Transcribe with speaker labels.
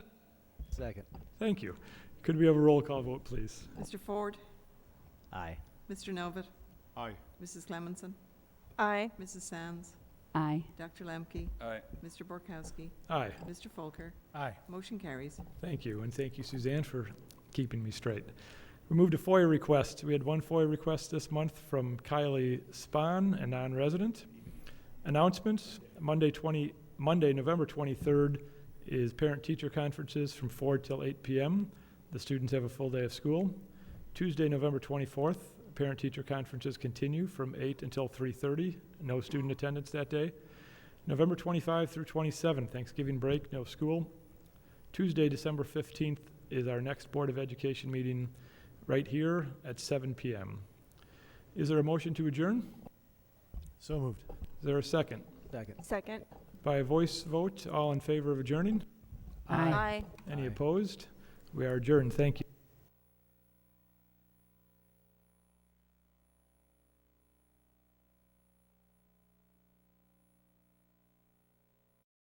Speaker 1: Second.
Speaker 2: Thank you. Could we have a roll call vote, please?
Speaker 3: Mr. Ford,
Speaker 1: Aye.
Speaker 3: Mr. Novit,
Speaker 4: Aye.
Speaker 3: Mrs. Clemenson,
Speaker 5: Aye.
Speaker 3: Mrs. Sands,
Speaker 5: Aye.
Speaker 3: Dr. Lemke,
Speaker 4: Aye.
Speaker 3: Mr. Borkowski,
Speaker 2: Aye.
Speaker 3: Mr. Folker.
Speaker 4: Aye.
Speaker 3: Motion carries.
Speaker 2: Thank you, and thank you, Suzanne, for keeping me straight. We moved to FOIA requests. We had one FOIA request this month from Kylie Spahn, a non-resident. Announcements, Monday 20, Monday, November 23rd is parent-teacher conferences from 4 till 8 p.m. The students have a full day of school. Tuesday, November 24th, parent-teacher conferences continue from 8 until 3:30. No student attendance that day. November 25 through 27, Thanksgiving break, no school. Tuesday, December 15th is our next Board of Education meeting right here at 7 PM. Is there a motion to adjourn?
Speaker 4: So moved.
Speaker 2: Is there a second?
Speaker 1: Second.
Speaker 5: Second.
Speaker 2: By a voice vote, all in favor of adjourning?
Speaker 5: Aye.
Speaker 2: Any
Speaker 1: Aye.
Speaker 2: opposed? We are adjourned. Thank you.